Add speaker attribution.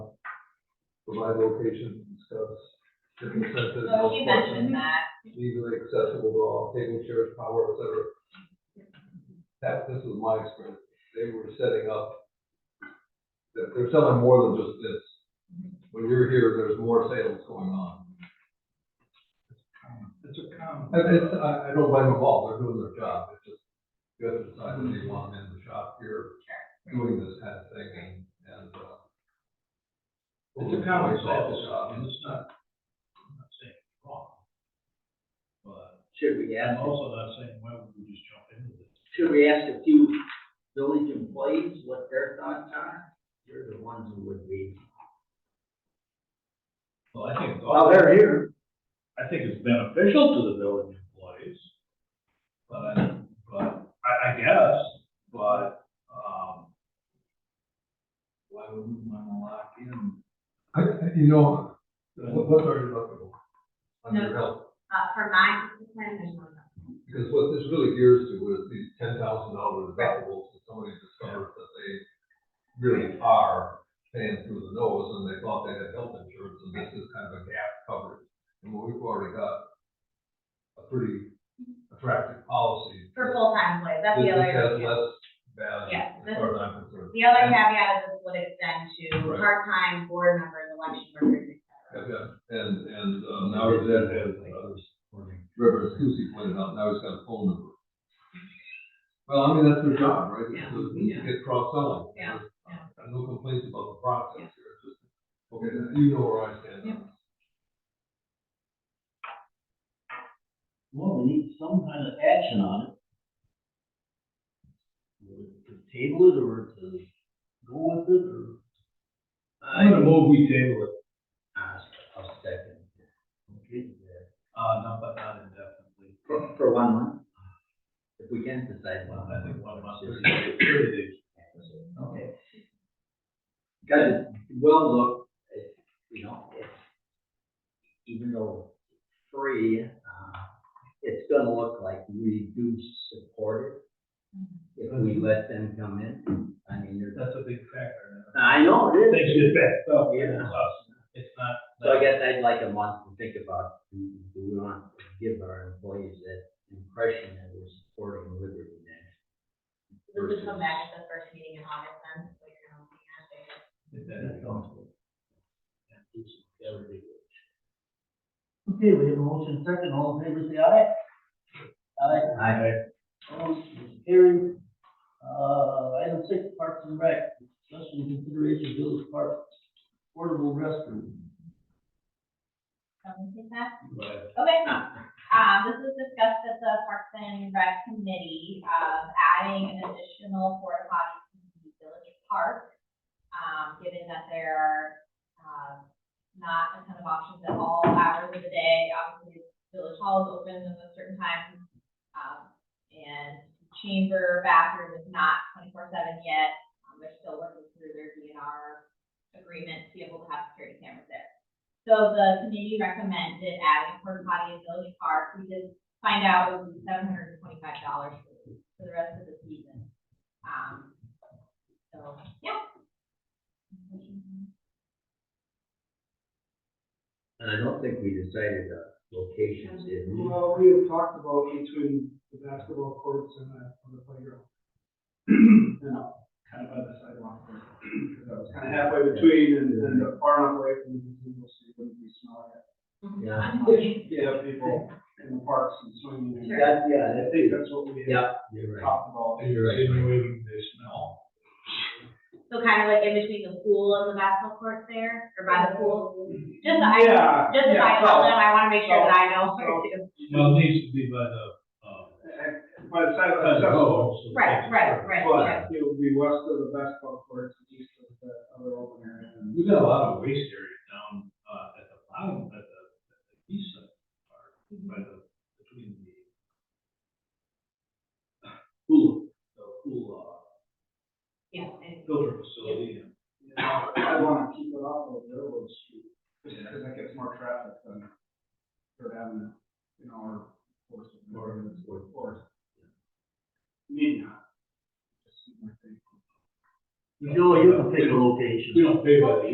Speaker 1: provide locations and stuff. The consensus,
Speaker 2: So
Speaker 1: no
Speaker 2: he
Speaker 1: parking,
Speaker 2: mentioned that,
Speaker 1: easily accessible to all, table chairs, power, et cetera. That, this is my experience, they were setting up, they're, they're selling more than just this. When you're here, there's more sales going on.
Speaker 3: It's a common.
Speaker 1: And it's, I, I don't blame them all, they're doing their job, it's just, you have to decide whether you want them in the shop here, doing this kind of thing, and, and, uh.
Speaker 3: It's a common practice, and it's not, I'm not saying it's wrong. But
Speaker 4: Should we
Speaker 3: I'm
Speaker 4: ask,
Speaker 3: also not saying, why would we just jump into this?
Speaker 4: should we ask a few village employees what their thoughts are? You're the ones who would be.
Speaker 3: Well, I think, it's
Speaker 4: Well,
Speaker 3: all-
Speaker 4: they're here.
Speaker 3: I think it's beneficial to the village employees. But, but, I, I guess, but, um, why would we wanna lock in?
Speaker 1: I, you know,
Speaker 3: what-
Speaker 1: what's our deductible on your
Speaker 2: No.
Speaker 1: health?
Speaker 2: uh, for my plan, there's no.
Speaker 1: Because what this really gears to is these ten thousand dollar deductibles that somebody discovers that they really are paying through the nose, and they thought they had health insurance, and this is kind of a gap coverage. And we've already got a pretty attractive policy.
Speaker 2: For full-time employees, that's the
Speaker 1: This-
Speaker 2: other.
Speaker 1: this has less value,
Speaker 2: Yeah,
Speaker 1: as
Speaker 2: this-
Speaker 1: far as I'm concerned.
Speaker 2: The other caveat is this would extend to
Speaker 1: Right.
Speaker 2: part-time board members, election workers, et cetera.
Speaker 1: Yeah, yeah. And, and, uh, now that, as, uh, Reverend Susie pointed out, now he's got a phone number. Well, I mean, that's their job, right? It's to
Speaker 4: Yeah.
Speaker 1: Get cross-selling.
Speaker 2: Yeah,
Speaker 1: Uh, No complaints about the process here, it's just, okay, you know where I stand.
Speaker 2: Yeah.
Speaker 4: Well, we need some kind of action on it. To table it or to go with it or?
Speaker 3: I'm gonna move we table it,
Speaker 4: I'll second. Okay.
Speaker 3: uh, not, but not indefinitely.
Speaker 4: For, for one month? If we can decide one
Speaker 3: I
Speaker 4: month.
Speaker 3: think one month is thirty days.
Speaker 4: Okay. Got it, well, look, it- you know, it's, even though it's free, uh, it's gonna look like we do support it if we let them come in. I mean, there's,
Speaker 3: That's a big factor.
Speaker 4: I know it
Speaker 3: Things
Speaker 4: is.
Speaker 3: get backed up.
Speaker 4: Yeah.
Speaker 3: It's us. It's not.
Speaker 4: So I guess I'd like a month to think about, do do we want to give our employees that impression that we're supporting liberty now?
Speaker 2: This would come back at the first meeting in August then, so you're gonna be happy.
Speaker 3: If that is possible.
Speaker 5: Okay, we have a motion second, all in favor, say aye. Aye,
Speaker 4: I,
Speaker 5: opposed, motion carried. Uh, item six, Parks and Rec, discussion and consideration, village park, portable restroom.
Speaker 2: Someone take that?
Speaker 3: But
Speaker 2: Okay, um, this was discussed at the Parks and Rec Committee, of adding an additional porta potty to the village park. Um, given that there are, um, not a ton of options at all hours of the day, obviously village hall is open at a certain time. Um, and chamber bathroom is not twenty-four seven yet, um, they're still working through their DNR agreement to be able to have security cameras there. So the committee recommended adding a porta potty in Village Park, we did find out it was seven hundred and twenty-five dollars for the rest of the season. Um, so, yeah.
Speaker 4: and I don't think we decided the locations, did we?
Speaker 6: Well, we have talked about between the basketball courts and the, and the playground. You know, kind of by the sidewalk. Kind of halfway between and, and far enough away from the people so you wouldn't be smelling it.
Speaker 4: Yeah.
Speaker 6: You have people in the parks and swimming. and-
Speaker 2: Sure.
Speaker 4: That,
Speaker 6: I
Speaker 4: yeah, that
Speaker 6: think that's what we had
Speaker 4: Yeah, you're right.
Speaker 6: talked about.
Speaker 3: You're insinuating they smell.
Speaker 2: So kind of like in between the pool and the basketball court there, or by the pool, just, I,
Speaker 6: Yeah.
Speaker 2: just if I
Speaker 6: yeah, Oh.
Speaker 2: tell
Speaker 6: so-
Speaker 2: them, I wanna make sure that I know where
Speaker 6: so-
Speaker 2: to.
Speaker 3: Well, it needs to be by the, uh.
Speaker 6: uh, By the side of
Speaker 3: by the
Speaker 1: oh.
Speaker 6: the sidewalk.
Speaker 3: road, so
Speaker 2: Right, right, right, yeah.
Speaker 6: But it would be west of the basketball courts, and east of the other open area. and-
Speaker 3: We've got a lot of waste area down, uh, at the bottom, at the, at the east side, of the park, by the, uh, between the uh, pool, the pool,
Speaker 2: Yeah, and-
Speaker 3: uh, filter facility and
Speaker 6: You know, I wanna keep it off of Railroad Street, just because that gets more traffic than Third Avenue, you know, or Fourth, or Fourth, Fourth. Maybe not. Just my thing.
Speaker 5: Joe, you can pick a location.
Speaker 3: We don't pay by the